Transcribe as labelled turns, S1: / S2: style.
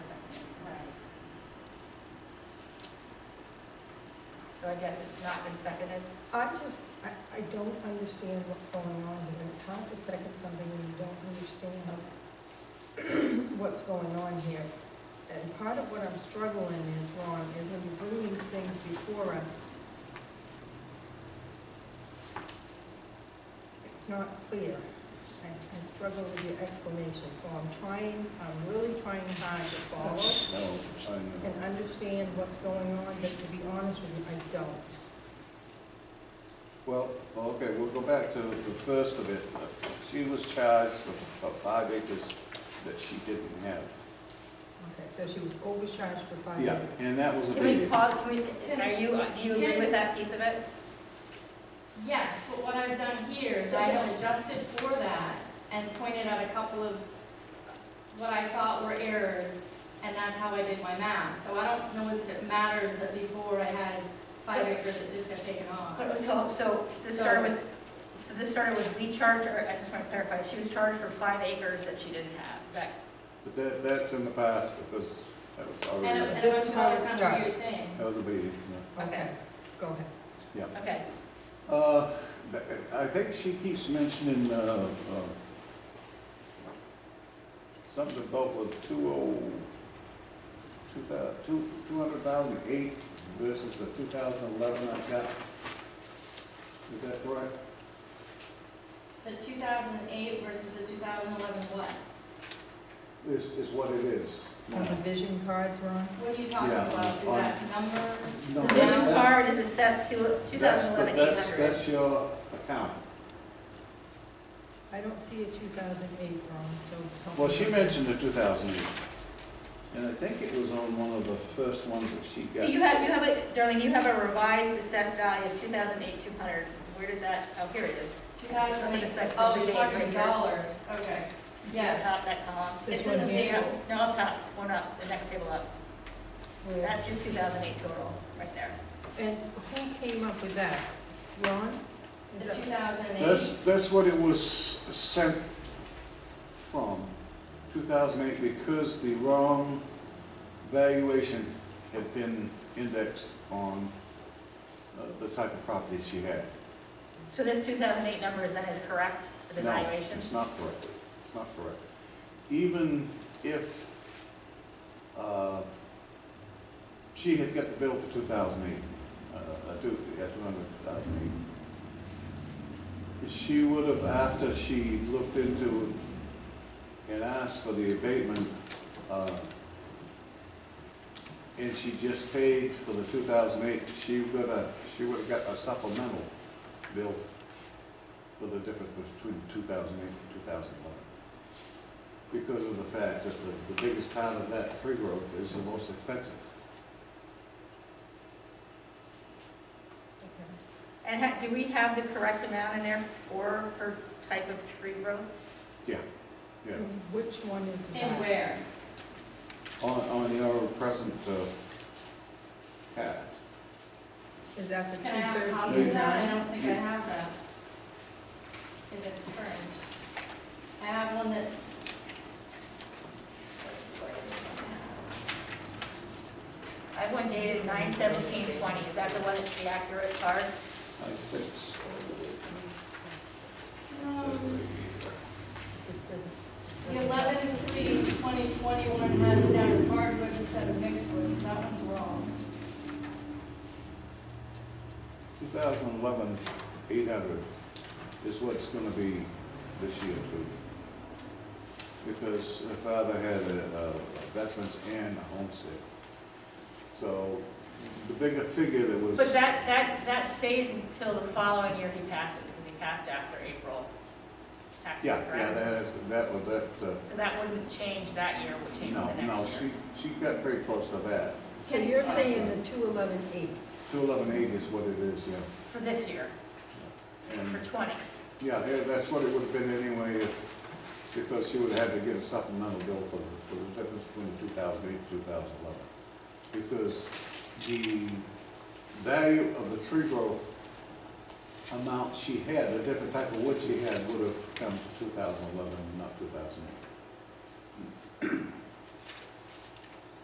S1: So I guess it's not been seconded.
S2: I'm just, I, I don't understand what's going on here. It's hard to second something when you don't understand what's going on here. And part of what I'm struggling is, Ron, is when you bring these things before us, it's not clear. I, I struggle with your explanation, so I'm trying, I'm really trying hard to follow
S3: No, sign
S2: and
S3: it.
S2: understand what's going on, but to be honest with you, I don't.
S3: Well, okay, we'll go back to the first of it. She was charged for for five acres that she didn't have.
S2: Okay, so she was overcharged for five
S3: Yeah,
S2: hundred.
S3: and that was
S1: Can we
S3: abated.
S1: pause, can we, are you, do you agree with that piece of it?
S4: Yes, but what I've done here is I have adjusted for that and pointed out a couple of what I thought were errors, and that's how I did my math. So I don't know if it matters that before I had five acres that just got taken off.
S1: So, so this
S4: So-
S1: started with, so this started with we charged her, I just want to clarify, she was charged for five acres that she didn't have. Is that-
S3: But that, that's in the past because that was
S4: And
S3: already,
S4: a and a
S2: This
S4: bunch
S2: is
S4: of
S2: how it
S4: other kind of
S2: started.
S4: weird
S3: that was
S4: things.
S3: abated, yeah.
S1: Okay.
S2: Go ahead.
S1: Okay,
S3: Uh, I think she keeps mentioning, uh, uh, something about with two oh, two thou, two, two hundred thousand eight versus the two thousand eleven I got. Is that correct?
S4: The 2008 versus the 2011 what?
S3: Is, is what it is.
S2: On the vision cards, Ron?
S4: What are you talking
S3: Yeah,
S4: about? Is
S3: on-
S4: that numbers?
S3: No,
S1: the vision
S3: that-
S1: card is assessed to
S3: that's the-
S1: 2,011,
S3: that's-
S1: 800.
S3: That's your account.
S2: I don't see a two thousand eight, Ron, so. help
S3: Well,
S2: me.
S3: she mentioned the two thousand eight. And I think it was on one of the first ones that she got.
S1: So you have, you have a, darling, you have a revised assessed value of 2008, 200. Where did that, oh, here it is.
S4: 2008,
S1: It's like
S4: oh,
S1: every
S4: you're
S1: day,
S4: talking
S1: right here.
S4: dollars, okay.
S1: You see up
S4: Yes,
S1: top, that column?
S2: This
S4: it's in the
S2: one here.
S4: table.
S1: No, up top, one up, the next table up.
S2: Where-
S1: That's your 2008 total, right there.
S2: And who came up with that? Ron? Is
S4: The
S2: that-
S4: 2008.
S3: That's, that's what it was sent from, 2008, because the wrong valuation had been indexed on uh, the type of property she had.
S1: So this 2008 number then is correct for the
S3: No,
S1: valuation?
S3: it's not correct. It's not correct. Even if uh, she had got the bill for 2008, uh, uh, two- yeah, 200,008, she would have, after she looked into it and asked for the abatement, uh, and she just paid for the 2008, she would have, she would have got a supplemental bill for the difference between 2008 and 2011. Because of the fact that the, the biggest part of that tree growth is the most expensive.
S2: Okay.
S1: And ha- do we have the correct amount in there for her type of tree growth?
S3: Yeah.
S2: And Which one is that?
S4: And where?
S3: On, on your present, uh, hat,
S2: Is that the
S4: Can I have a
S2: two
S4: copy of
S2: thirteen
S4: that? I
S2: nine?
S4: don't think I have that. If it's current. I have one that's. what's the latest one I
S1: I have one dated 9/17/20, is that the one that's the accurate chart?
S3: I six.
S4: have? Um,
S2: This doesn't.
S4: The eleven three twenty twenty-one has it down as hardwood instead of mixed wood, so that one's wrong.
S3: 2011, 800 is what's gonna be this year too. Because her father had a a veterans and a homestead. So the bigger figure that was.
S1: But that, that, that stays until the following year he passes, because he passed after April. Tax year,
S3: Yeah, yeah,
S1: correct?
S3: that is, that was, that, uh,
S1: So that wouldn't change that year, it would change
S3: no,
S1: the
S3: no,
S1: next
S3: she,
S1: year.
S3: she got very close to that.
S2: So you're saying the two eleven eight?
S3: 211.8 is what it is, yeah.
S1: For this year,
S3: And,
S1: for 20.
S3: yeah, yeah, that's what it would have been anyway, if- because she would have had to get a supplemental bill for, the- for the difference between 2008 and 2011. Because the value of the tree growth amount she had, the different type of wood she had, would have come to 2011 and not 2008.